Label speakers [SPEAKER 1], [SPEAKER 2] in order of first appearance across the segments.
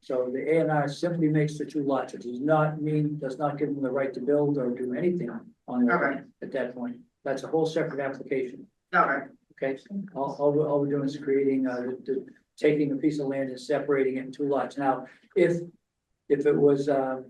[SPEAKER 1] So the A and R simply makes the two lots, it does not mean, does not give them the right to build or do anything on their
[SPEAKER 2] Okay.
[SPEAKER 1] land at that point. That's a whole separate application,
[SPEAKER 2] Okay,
[SPEAKER 1] okay? All, all, we're- all we're doing is creating, uh, the- the- taking a piece of land and separating it in two lots. Now, if, if it was, um,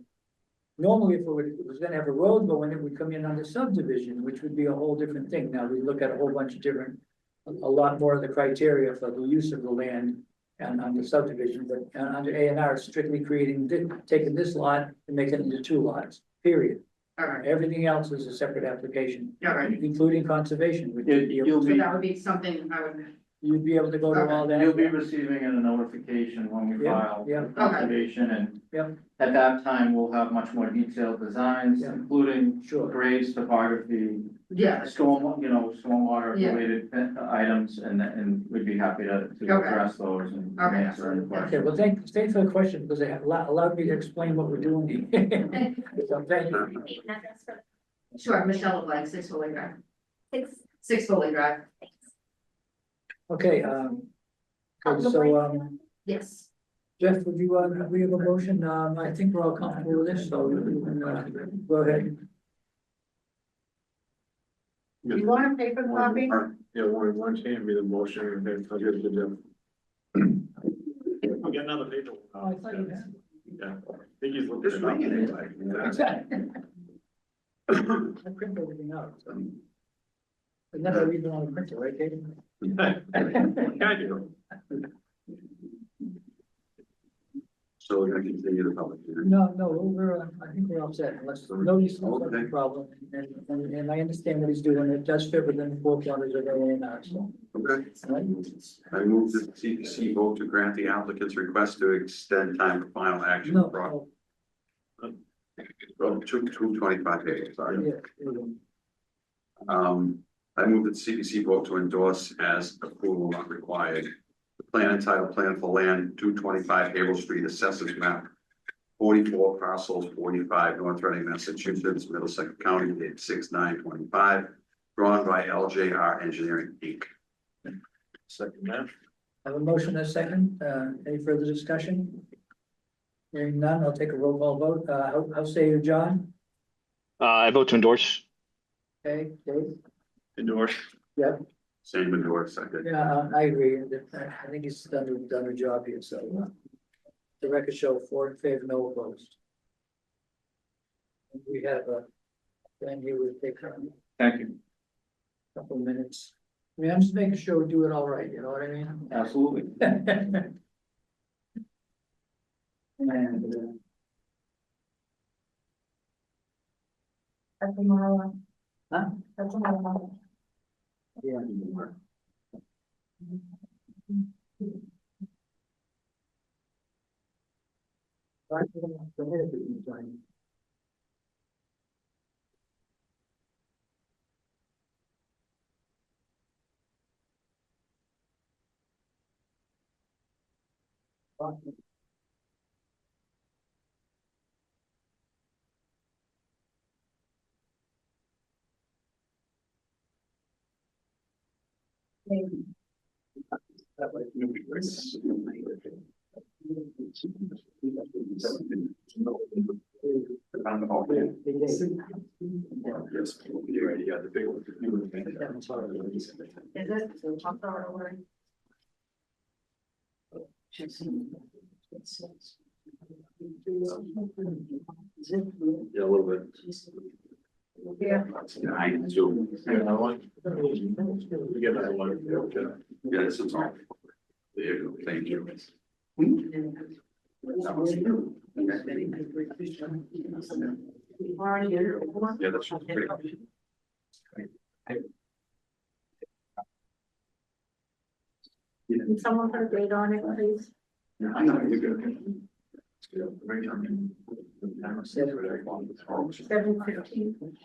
[SPEAKER 1] normally if it was, it was gonna have a road going, it would come in under subdivision, which would be a whole different thing. Now, we look at a whole bunch of different, a a lot more of the criteria for the use of the land and under subdivision, but uh, under A and R, it's strictly creating, thi- taking this lot and making it into two lots, period.
[SPEAKER 2] okay,
[SPEAKER 1] Everything else is a separate application,
[SPEAKER 2] okay.
[SPEAKER 1] including conservation, which
[SPEAKER 3] You-
[SPEAKER 1] you'd be able
[SPEAKER 3] you'll
[SPEAKER 2] So
[SPEAKER 1] to,
[SPEAKER 3] be-
[SPEAKER 2] that would be something I would,
[SPEAKER 1] you'd be able to go to all that.
[SPEAKER 3] You'll be receiving a notification when we
[SPEAKER 1] Yeah,
[SPEAKER 3] file
[SPEAKER 1] yeah.
[SPEAKER 3] with conservation and.
[SPEAKER 1] Yeah.
[SPEAKER 3] At that time, we'll have much more detailed designs,
[SPEAKER 1] Yeah.
[SPEAKER 3] including
[SPEAKER 1] Sure.
[SPEAKER 3] grades, topography,
[SPEAKER 2] yeah,
[SPEAKER 3] storm, you know, stormwater
[SPEAKER 2] Yeah.
[SPEAKER 3] related uh, items and and we'd be happy to to
[SPEAKER 2] Okay.
[SPEAKER 3] address those and
[SPEAKER 2] Okay.
[SPEAKER 3] answer any
[SPEAKER 1] Okay,
[SPEAKER 3] questions.
[SPEAKER 1] well, thank, thanks for the question, because it allowed, allowed me to explain what we're doing. So thank you.
[SPEAKER 2] sure, Michelle LeBlanc, Six Foley Drive,
[SPEAKER 4] Six,
[SPEAKER 2] Six Foley Drive,
[SPEAKER 1] Okay, um,
[SPEAKER 4] oh, the
[SPEAKER 1] so,
[SPEAKER 4] white-
[SPEAKER 1] um,
[SPEAKER 2] yes.
[SPEAKER 1] Jeff, would you, uh, we have a motion, um, I think we're all comfortable with this, so you can, uh, go ahead.
[SPEAKER 5] You
[SPEAKER 2] want a paper
[SPEAKER 5] Yeah, one, one hand me the motion and then I'll give it to them. I'll get another paper.
[SPEAKER 1] Oh, I thought you had.
[SPEAKER 5] Yeah. I think he's looking it up.
[SPEAKER 1] I print everything out, so. I never read it on the printer, right, Katie?
[SPEAKER 5] Yeah, I do.
[SPEAKER 6] So we're gonna continue the public hearing.
[SPEAKER 1] No, no, we're, uh, I think we're all set, unless nobody's got a problem, and, and, and I understand what he's doing, it does fit within the four corners of the A and R, so.
[SPEAKER 6] Okay. I move that CPC vote to grant the applicant's request to extend time for final action.
[SPEAKER 1] No,
[SPEAKER 6] Pro-
[SPEAKER 1] no,
[SPEAKER 6] Well, two, two twenty-five days, sorry.
[SPEAKER 1] oh, yeah, we're good.
[SPEAKER 6] Um, I move that CPC vote to endorse as approval not required. The plan entitled Plan for Land, two twenty-five Havel Street, assessors map. Forty-four parcels, forty-five North Reading, Massachusetts, Middlesex County, date six nine twenty-five, drawn by LJR Engineering Inc.
[SPEAKER 5] Second that.
[SPEAKER 1] I have a motion and a second, uh, any further discussion? Hearing none, I'll take a roll call vote, uh, how, how say you, John?
[SPEAKER 7] Uh, I vote to endorse.
[SPEAKER 1] Okay, Dave?
[SPEAKER 5] Endorse.
[SPEAKER 6] Same endorse, second.
[SPEAKER 1] Yeah, uh, I agree, I think he's done, a- done a job here, so. uh, The record show four in favor, no opposed. And We have a, then here will take a
[SPEAKER 3] Thank you.
[SPEAKER 1] couple of minutes. I mean, I'm just making sure we do it all right, you know what I mean?
[SPEAKER 3] Absolutely.
[SPEAKER 1] And, uh,
[SPEAKER 4] That's a mile.
[SPEAKER 1] Huh?
[SPEAKER 4] That's a mile.
[SPEAKER 1] yeah. Right, we're gonna have to hit it with the time.
[SPEAKER 5] That way. Yes, you're right, yeah, the big one.
[SPEAKER 2] Is it, so top dollar or?
[SPEAKER 5] Yeah, a little bit.
[SPEAKER 2] Yeah.
[SPEAKER 6] Nine, two.
[SPEAKER 5] Yeah, I want- We get that one. yeah, okay.
[SPEAKER 6] Yeah, this is all. There you go, thank you. Yeah, that's great.
[SPEAKER 4] Can someone put a date on it, please?
[SPEAKER 6] Yeah, I know, you're good. Yeah, very good.
[SPEAKER 4] Seven fifteen.